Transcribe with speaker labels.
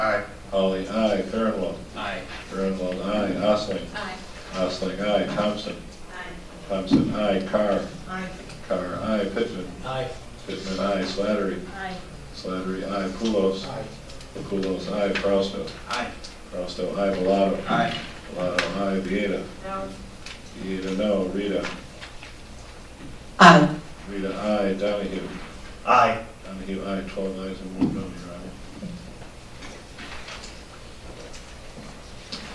Speaker 1: Holly, aye. Farinwald.
Speaker 2: Aye.
Speaker 1: Farinwald, aye. Osling.
Speaker 3: Aye.
Speaker 1: Osling, aye. Thompson.
Speaker 3: Aye.
Speaker 1: Thompson, aye. Carr.
Speaker 3: Aye.
Speaker 1: Carr, aye. Pittman.
Speaker 2: Aye.
Speaker 1: Pittman, aye. Slattery.
Speaker 3: Aye.
Speaker 1: Slattery, aye. Pulos.
Speaker 2: Aye.
Speaker 1: Pulos, aye. Fausto.
Speaker 2: Aye.
Speaker 1: Fausto, aye. Bellato.
Speaker 2: Aye.
Speaker 1: Bellato, aye. Vieta.
Speaker 3: No.
Speaker 1: Vieta, no. Rita.
Speaker 4: aye,
Speaker 1: Rita, aye. Donahue.
Speaker 2: Aye.
Speaker 1: Donahue, aye. Twelve ayes and one